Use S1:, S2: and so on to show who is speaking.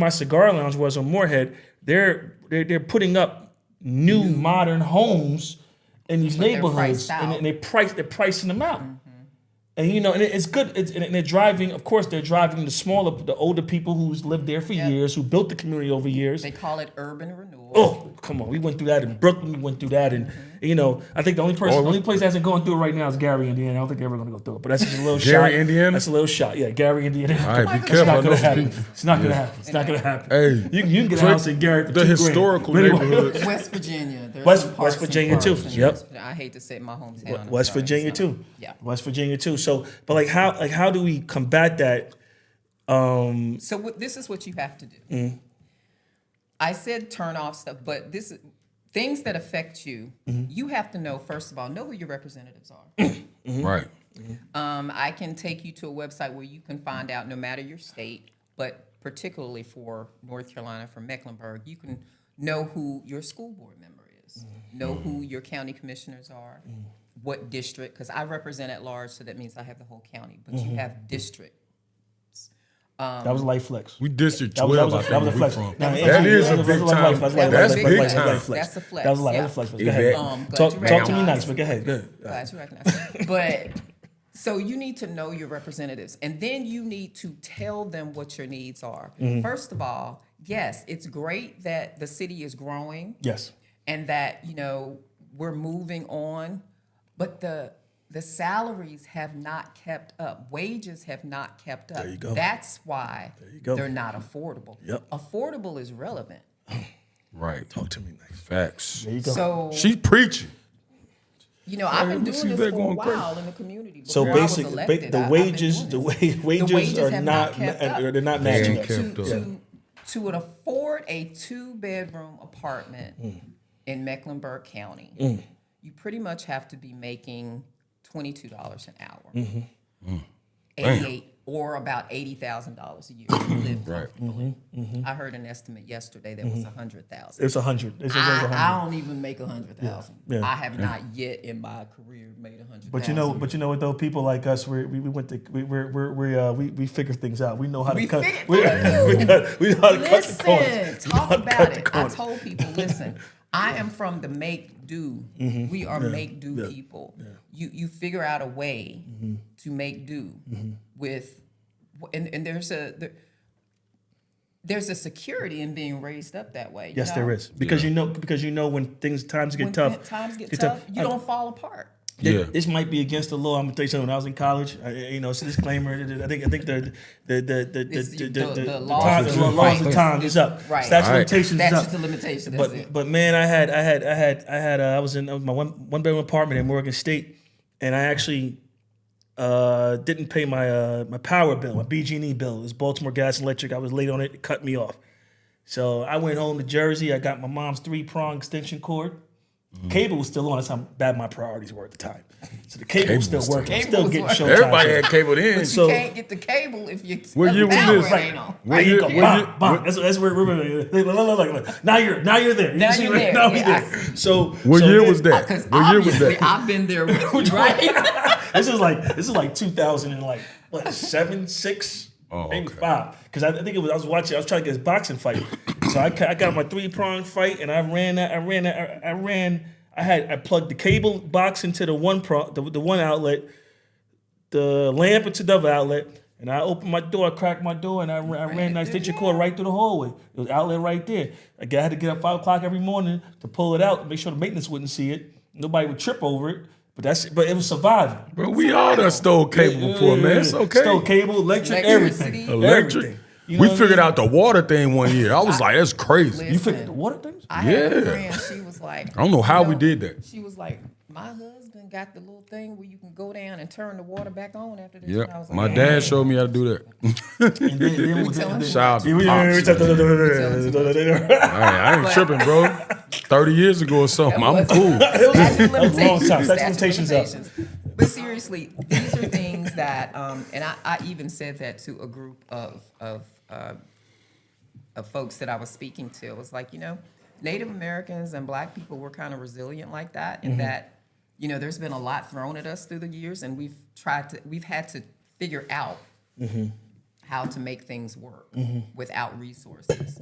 S1: my cigar lounge was on Moorhead, they're they're, they're putting up new modern homes in these
S2: they're
S1: neighborhoods,
S2: priced
S1: and
S2: out. Mm-hmm.
S1: they- they price they're pricing them out. And you know, and it- it's good. It's, and they're driving. Of course, they're driving the smaller, the older people who's lived there for years, who built the community over years.
S2: They call it urban renewal.
S1: Oh, come on. We went through that in Brooklyn. We went through that, and you know, I think the only person, the only place that hasn't gone through it right now is Gary, Indiana. I don't think they're ever going to go through it, but that's just a little shot.
S3: Gary, Indiana?
S1: That's a little shot. Yeah, Gary, Indiana.
S3: All right, be
S1: It's
S3: careful. I
S1: not
S3: know
S1: gonna
S3: some
S1: happen.
S3: people.
S1: It's not gonna happen. It's not gonna happen.
S3: Hey,
S1: you, you can get a
S3: Drake,
S1: house in Garrett. For
S3: the
S1: two grand.
S3: historical
S1: But anyway,
S3: neighborhood.
S2: West Virginia. There's
S1: West-
S2: some
S1: West
S2: parks and
S1: Virginia too.
S2: parks in
S1: Yep.
S2: West- I hate to say my hometown. I'm
S1: West
S2: sorry,
S1: Virginia
S2: so-
S1: too.
S2: Yeah.
S1: West Virginia too. So, but like how like how do we combat that?
S2: So what, this is what you have to do.
S1: Mm-hmm.
S2: I said turn off stuff, but this things that affect you.
S1: Mm-hmm.
S2: You have to know first of all, know who your representatives are.
S1: Mm-hmm.
S3: Right.
S2: um, I can take you to a website where you can find out no matter your state, but particularly for North Carolina, for Mecklenburg, you can know who your school board member is,
S1: Mm-hmm.
S2: know who your county commissioners are, what district, because I represent at large, so that means I have the whole county, but
S1: Mm-hmm.
S2: you have district. Um,
S1: that was a light flex.
S3: We district
S1: That was, that was, a,
S3: twelve. I
S1: that was a
S3: think we
S1: flex.
S3: from.
S1: No,
S3: That
S1: yeah,
S3: is
S1: that
S3: a
S1: was
S3: big
S1: that was a light
S3: time.
S1: flex. That was a light flex. That was a light flex.
S2: That's
S3: That's big time.
S2: a flex,
S1: That was a light. That was a
S2: yeah.
S1: flex. Go
S3: Yeah.
S1: ahead.
S2: Um,
S1: talk
S2: glad you
S1: talk to me
S2: recognized.
S1: nice, but go ahead. Go ahead.
S2: Glad you recognize. but so you need to know your representatives, and then you need to tell them what your needs are.
S1: Mm-hmm.
S2: First of all, yes, it's great that the city is growing
S1: Yes.
S2: and that you know we're moving on, but the the salaries have not kept up. Wages have not kept up.
S1: you go.
S2: That's why
S1: go.
S2: they're not affordable.
S1: Yep.
S2: Affordable is relevant.
S3: Right.
S1: Talk to me nice.
S3: Facts.
S1: There you go.
S2: So
S3: She preaching.
S2: You know, I've been
S3: we see
S2: doing
S3: they're
S2: this for a
S3: going crazy.
S2: while in the community.
S1: So
S2: before I was
S1: basically,
S2: elected, I-
S1: the
S2: I've been
S1: wages,
S2: doing
S1: the
S2: this.
S1: wa- wages
S2: wages
S1: are
S2: have
S1: not,
S2: not kept
S1: ma-
S2: up.
S1: they're not
S3: They
S1: matching
S3: ain't
S1: up.
S3: kept
S2: to,
S3: up.
S2: to, to an afford a two bedroom apartment
S1: Mm.
S2: in Mecklenburg County, you pretty much have to be making twenty two dollars an hour,
S1: Mm-hmm. Mm.
S2: eighty eight or about eighty thousand dollars a year to live
S1: Mm-hmm.
S2: comfortably. I heard an estimate yesterday that was a hundred thousand.
S1: It's a hundred. It's just over a Mm-hmm. hundred.
S2: I, I don't even make a hundred thousand.
S1: yeah.
S2: I have not yet in my career made a hundred.
S1: But you know, but you know what though? People like us, we're, we we went to we we're, we're, we uh, we we figure things out. We know how to
S2: We
S1: cut.
S2: figure-
S1: We, we, cut we know how to cut the
S2: listen,
S1: corners.
S2: talk
S1: cut
S2: about
S1: the
S2: it. I
S1: corners.
S2: told people, listen, I am from the make do.
S1: Mm-hmm.
S2: We are make do people. You you figure out a way
S1: Mm-hmm.
S2: to make do with, and and there's a. There, there's a security in being raised up that way. you
S1: Yes, there
S2: know?
S1: is because you know because you know when things times get
S2: When
S1: tough.
S2: times get,
S1: get
S2: tough,
S1: tough.
S2: you
S1: I-
S2: don't fall apart.
S1: Th-
S3: Yeah.
S1: This might be against the law. I'm gonna tell you something. When I was in college, I, you know, it's a disclaimer. I think I think the the the the the
S2: It's
S1: the, the,
S2: the-
S1: the,
S2: the
S1: the
S2: laws
S1: time-
S2: is-
S1: the laws of
S2: right.
S1: time is up.
S2: Right.
S1: Statute of
S3: Right.
S1: limitations is
S2: That's
S1: up.
S2: just a limitation. That's it.
S1: But but man, I had I had I had I had uh, I was in uh, my one one bedroom apartment in Morgan State, and I actually uh, didn't pay my uh, my power bill, my BG&E E bill. It was Baltimore Gas and Electric. I was late on it. It cut me off. So I went home to Jersey. I got my mom's three prong extension cord.
S3: Mm-hmm.
S1: Cable was still on. That's how bad my priorities were at the time. So the cable, was still
S3: was still
S1: working. I'm
S2: on.
S1: still
S2: Cable
S1: getting
S2: was
S1: showtime.
S2: working.
S3: Everybody had cable then.
S1: so
S2: you can't get the cable if you
S3: What year was
S2: power
S3: this?
S2: ain't on.
S3: What
S1: there you
S3: year-
S1: go.
S3: what
S1: Bang,
S3: year-
S1: bang. That's, that's where we're, now you're now you're there. You
S2: Now
S1: see
S2: you're
S1: where-
S2: there.
S1: Now we're
S2: Yeah, I
S1: there. So
S3: What
S1: so
S3: year
S1: then-
S3: was that?
S2: Because
S3: What year was
S2: obviously
S3: that?
S2: I've been there with you, right?
S1: this is like this is like 2000 and like what seven six
S3: Oh,
S1: maybe
S3: okay.
S1: five because I, I think it was I was watching I was trying to get this boxing fight so I, ca- I got my three prong fight and I ran that I ran that I, I ran I had I plugged the cable box into the one pro the, the one outlet the lamp into the other outlet and I opened my door I cracked my door and I, ran- I ran that extension cord right through the hallway it was outlet right there I, got- I had to get up five o'clock every morning to pull it out make sure the maintenance wouldn't see it nobody would trip over it. But that's but it was surviving.
S3: Bro, we all done stole cable before, man. It's okay.
S1: Stole cable, electric,
S2: Electricity.
S1: everything.
S3: Electric.
S1: Everything. You know
S3: we
S1: what I
S3: figured
S1: mean?
S3: out the water thing one year. I was like, that's crazy.
S1: You figured the water things?
S2: I had a
S3: Yeah.
S2: friend, she was like,
S3: I don't know how
S2: you
S3: we did that.
S2: She was like, my husband got the little thing where you can go down and turn the water back on after this. And I
S3: Yeah,
S2: was like,
S3: my
S2: "Yeah."
S3: dad showed me how to do that.
S1: And then, then we
S2: telling
S1: then-
S2: you.
S3: Shout out
S1: Yeah,
S3: to
S1: we-
S3: Pops,
S1: we-
S3: man.
S1: That
S3: Hey, I ain't tripping, bro. Thirty years ago or something. I'm cool.
S2: Statute of
S1: was a long time. Statute of
S2: limitations, statute of
S1: limitations up.
S2: limitations. But seriously, these are things that, um, and I, I even said that to a group of of uh, of folks that I was speaking to. It was like, you know, Native Americans and Black people were kind of resilient like that,
S1: Mm-hmm.
S2: in that, you know, there's been a
S1: Mm-hmm.
S2: lot thrown at us through the years, and we've tried to, we've had to figure out how to make things work without resources.